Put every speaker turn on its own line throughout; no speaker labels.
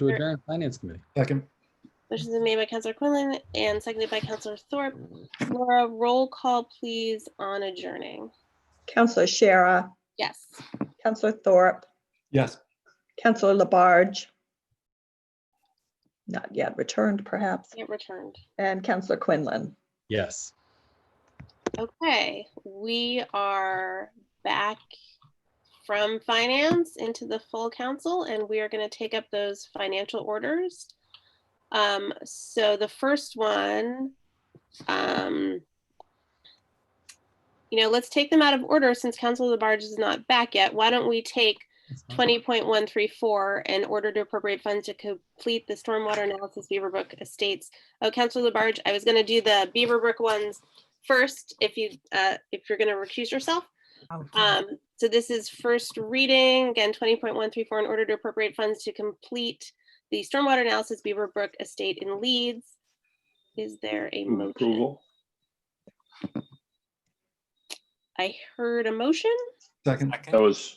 to adjourn Finance Committee.
Second,
Motion's been made by Counselor Quinlan and seconded by Counselor Thorpe. Laura, roll call please on adjourning.
Counselor Shara,
Yes.
Counselor Thorpe,
yes.
Counselor Labarge. Not yet returned perhaps,
It returned.
and Counselor Quinlan.
Yes.
Okay, we are back from finance into the full council and we are going to take up those financial orders. Um, so the first one, um, you know, let's take them out of order since Council of the Barge is not back yet. Why don't we take
That's
Mm-hmm.
fine.
twenty point one three four in order to appropriate funds to complete the stormwater analysis Beaverbrook Estates. Oh, Counselor Labarge, I was gonna do the Beaverbrook ones first, if you, uh, if you're gonna recuse yourself.
Mm-hmm.
Um, so this is first reading, again, twenty point one three four, in order to appropriate funds to complete the stormwater analysis Beaverbrook Estate in Leeds. Is there a
Move
motion?
Approval,
I heard a motion
Second,
that was,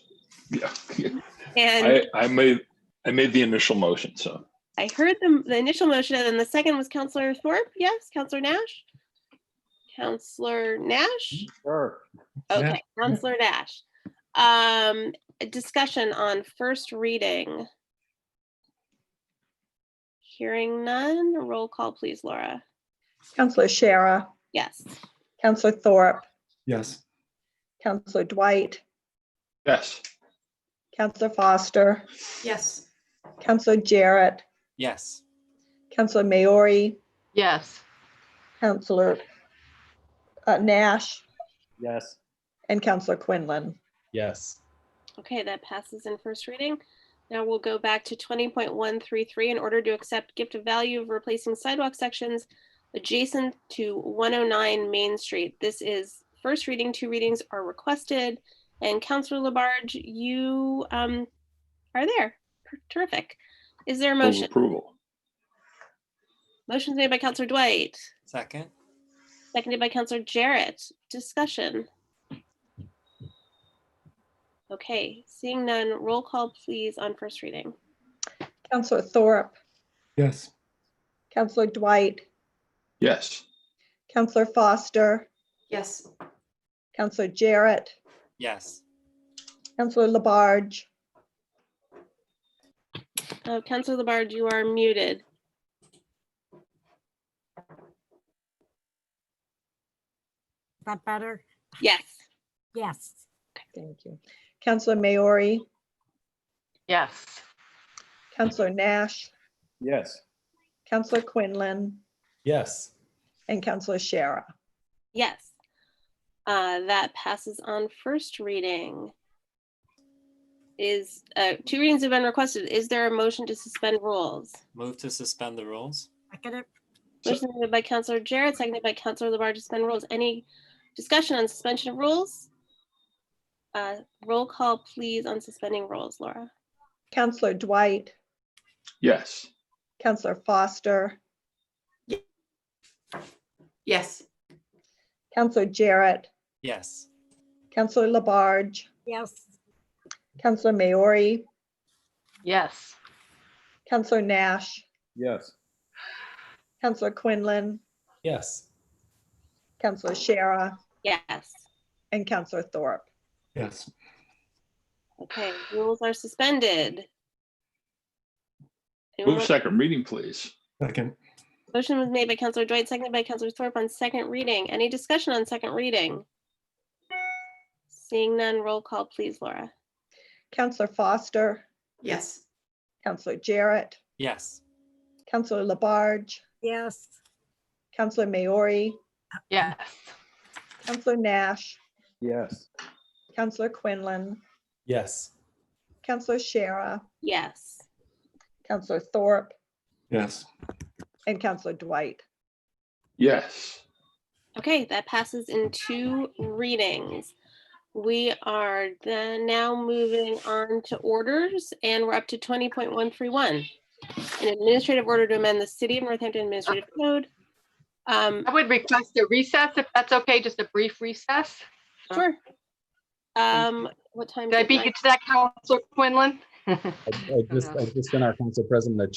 yeah,
and
I, I made, I made the initial motion, so,
I heard the, the initial motion and then the second was Counselor Thorpe. Yes, Counselor Nash? Counselor Nash?
sure.
Okay, Counselor Nash. Um, a discussion on first reading. Hearing none, roll call please, Laura.
Counselor Shara,
Yes.
Counselor Thorpe,
Yes.
Counselor Dwight,
yes.
Counselor Foster,
Yes.
Counselor Jarrett,
Yes.
Counselor Maori,
Yes.
Counselor uh, Nash,
Yes.
and Counselor Quinlan.
Yes.
Okay, that passes in first reading. Now we'll go back to twenty point one three three in order to accept gift of value of replacing sidewalk sections adjacent to one oh nine Main Street. This is first reading, two readings are requested. And Counselor Labarge, you um are there. Terrific. Is there a
Move
motion?
Approval,
Motion's made by Counselor Dwight,
Second.
seconded by Counselor Jarrett. Discussion. Okay, seeing none, roll call please on first reading.
Counselor Thorpe,
Yes.
Counselor Dwight,
yes.
Counselor Foster,
Yes.
Counselor Jarrett,
Yes.
Counselor Labarge,
Uh, Counselor Labarge, you are muted.
Is that better?
Yes.
Yes.
thank you. Counselor Maori,
Yes.
Counselor Nash,
Yes.
Counselor Quinlan,
Yes.
and Counselor Shara.
Yes. Uh, that passes on first reading. Is, uh, two readings have been requested. Is there a motion to suspend rules?
Move to suspend the rules.
Second it.
So-
Motion made by Counselor Jarrett, seconded by Counselor Labarge to suspend rules. Any discussion on suspension of rules? Uh, roll call, please, on suspending rules, Laura.
Counselor Dwight,
Yes,
Counselor Foster,
Yes.
Counselor Jarrett,
Yes.
Counselor Labarge,
Yes.
Counselor Maori,
Yes.
Counselor Nash,
Yes.
Counselor Quinlan,
Yes.
Counselor Shara,
Yes.
and Counselor Thorpe.
Yes.
Okay, rules are suspended. Anyone
move
want-
second reading, please.
Second,
Motion was made by Counselor Dwight, seconded by Counselor Thorpe on second reading. Any discussion on second reading? Seeing none, roll call, please, Laura.
Counselor Foster,
Yes.
Counselor Jarrett,
Yes.
Counselor Labarge,
Yes.
Counselor Maori,
Yes.
Counselor Nash,
yes.
Counselor Quinlan,
Yes.
Counselor Shara,
Yes.
Counselor Thorpe,
Yes.
and Counselor Dwight.
Yes,
Okay, that passes in two readings. We are then now moving on to orders, and we're up to twenty point one three one. An administrative order to amend the City of Northampton Administrative Code. Um,
I would request a recess if that's okay, just a brief recess.
sure. Um, what time?
Did I
is it
beat
now?
you to that, Counselor Quinlan?
I I just, I just sent our council president a